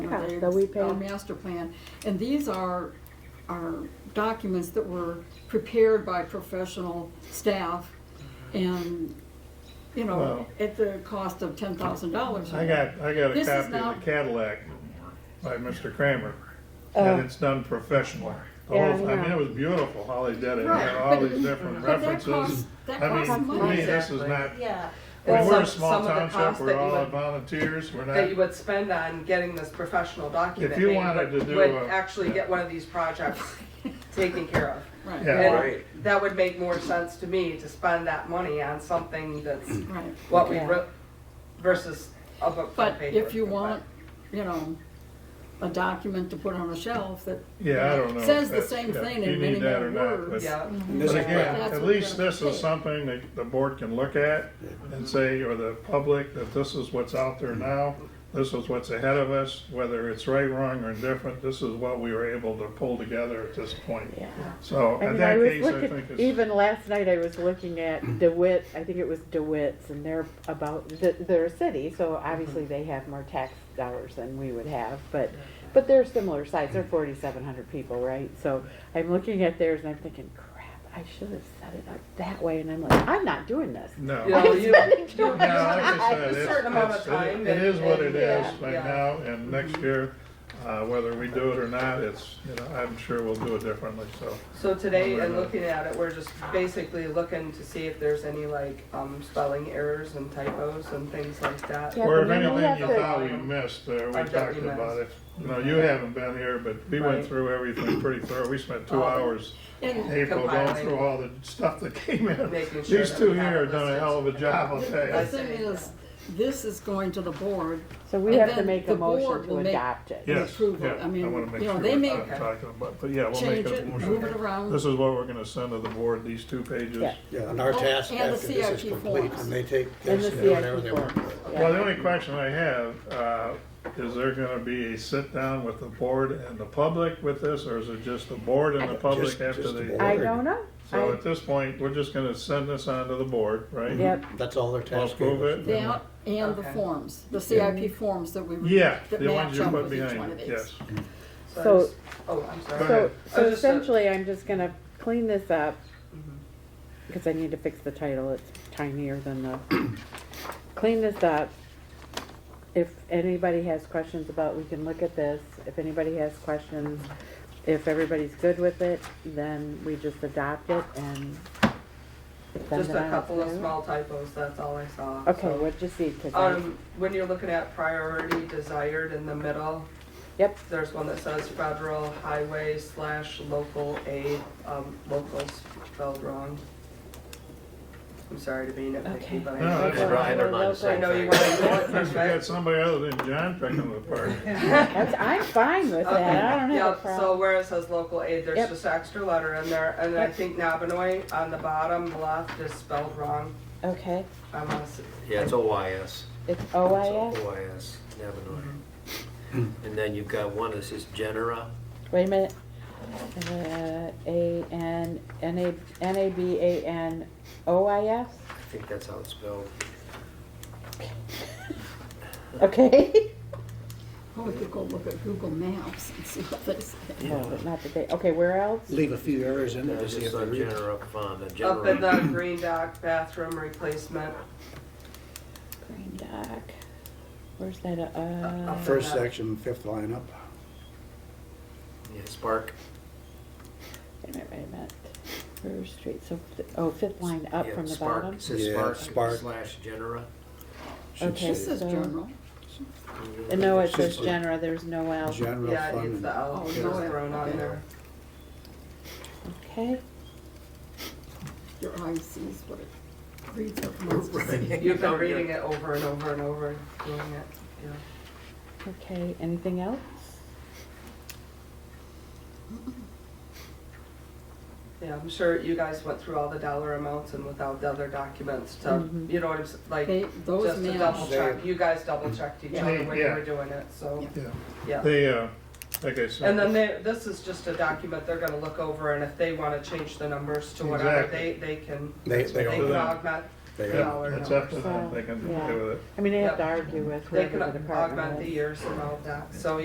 Yeah, their- that we pay. Our master plan, and these are, are documents that were prepared by professional staff and, you know, Well- at the cost of ten thousand dollars. I got, I got a This is copy of not- the Cadillac by Mr. Kramer, Oh. and it's done professionally. The Yeah, whole- I I mean, know. it was beautiful how they did it, Right, and all but- these different but that costs- references. that I costs mean, to money. me, this is Exactly. not, Yeah, I mean, Well, we're a some- small some of the township, costs that we're you all would- volunteers, we're that you not, would spend on getting this professional document. If you made, wanted to would- do Would a- actually get one of these projects taken care of. Right, Yeah. And Right. That would make more sense to me to spend that money on something that's right. what we Yeah. wrote versus a book on But paper. if you But- want, you know, a document to put on a shelf that yeah, I don't know. if Says the that's- same yeah, thing if in you many need that more or not, words. Yeah, And this But again, is why- That's at what least they're this is saying. something that the board can look at and say, or the public, that this is what's out there now. This is what's ahead of us, whether it's right, wrong, or indifferent, this is what we were able to pull together at this point. Yeah. I So in mean, I that was case, I looking, think it's, even last night I was looking at DeWitt, I think it was DeWitt's, and they're about, th- they're a city, so obviously Mm-hmm. they have more tax dollars than we would have, but, but they're similar size, they're forty-seven hundred people, right? So I'm looking at theirs and I'm thinking, crap, I should have set it up that way, and I'm like, I'm not doing this. no. You know, I'm you- spending you too have much No, like I time. said, a it's- certain amount of it's- it- time It and- is what it and- is yeah, right yeah. now, and next year, uh, whether we do it or not, it's, you know, I'm sure we'll do it differently, so. So today, and looking at it, we're just basically looking to see if there's any like um, spelling errors and typos and things like that. Yeah, but Or if then we anything have you to- thought we missed, uh, we Or that talked we missed. about it. No, you haven't been here, but we went Right. through everything pretty thorough. We spent two Oh. hours in And- April going Compiling. through all the stuff that came in. Making sure These that two we have here it have done a listed. hell of a job, I'll tell the you. Yes. thing is, this is going to the board So we And have to then make the a motion board to will make- adopt it. Yes, approval. yeah, I mean, I wanna make you know, sure they what may I'm talking about, but yeah, we'll make change a it, move it motion. around. This is what we're gonna send to the board, these two pages. Yeah. Yeah, and our Oh, task and the after this is CIP complete, forms. and they take And this the and whatever CIP they work forms. with. Yeah. Well, the only question I have, uh, is there gonna be a sit-down with the board and the public with this, or is it just the board and the public Just- after just the they? board. I don't know. So I- at this point, we're just gonna send this on to the board, right? Yep. That's all their task. Well, prove is. it. That and the Okay. forms, the CIP forms that we. re- Yeah, that the ones match you up put with each one behind of it, these. yes. I So- just- Oh, I'm Go sorry. ahead. So, so I just said- essentially, I'm just gonna clean this up, Mm-hmm. because I need to fix the title, it's tinier than the, clean this up. If anybody has questions about, we can look at this, if anybody has questions, if everybody's good with it, then we just adopt it and send Just it a on couple of through. small typos, that's all I saw. Okay, So, what'd you see, 'Cause I- Um, when you're looking at priority desired in the middle, yep, there's one that says federal highway slash local aid, um, locals spelled wrong. I'm sorry to be Okay. nitpicky, but I. No, that's Local right. highway, They're not the local- I same. know you want to do it, Because we got somebody other than John picking the part. That's, I'm fine with Okay, that, I don't have a Yep, so problem. where it says local aid, there's Yep. just an extra letter in there, and I Yep. think Nabinoy on the bottom left is spelled wrong. Okay, I want to, Yeah, it's OYS. it's It's OIS, OYS, Navinoy. And then you've got one that says Genera. Wait a minute. Uh, A N N A N A B A N O I S. I think that's how it's spelled. Okay. Oh, we could go look at Google Maps and see what they say. No, but not today. Okay, where else? Leave a few errors in there to That's see if just they on read. it. Genera Fund, uh, up in Genera. the green dock bathroom replacement, Green Dock. Where's that? Uh, Uh, uh, First section, fifth line up. Yeah, Spark. wait a minute. Wait a minute. First Street. So, th- oh, fifth line up Yeah, from the Spark. bottom. It says Yeah, Spark Spark. slash Genera. Should Okay. This say is general. And no, it Should says say- genera. There's no L. General yeah, it needs fund. the L Oh, just no, it- thrown on okay. there. Okay. Your eye sees what it reads up wants to see. You've been reading it over and over and over, doing it, yeah. Okay. Anything else? Yeah, I'm sure you guys went through all the dollar amounts and without the other documents to, you know what I'm, s- like, They, those just to double maps, check, you guys double checked each other when you Yeah. were doing it, so, Yeah. yeah. They, uh, like I said. And then they, this is just a document they're gonna look over, and if they wanna change the numbers to whatever, Exactly. they, they can, They, they they all can do. all, augment, they all. Yeah, It's up to them, So, they can yeah. do with it. I mean, I have Yep. to argue with they whoever can the department augment is. the years and all that, so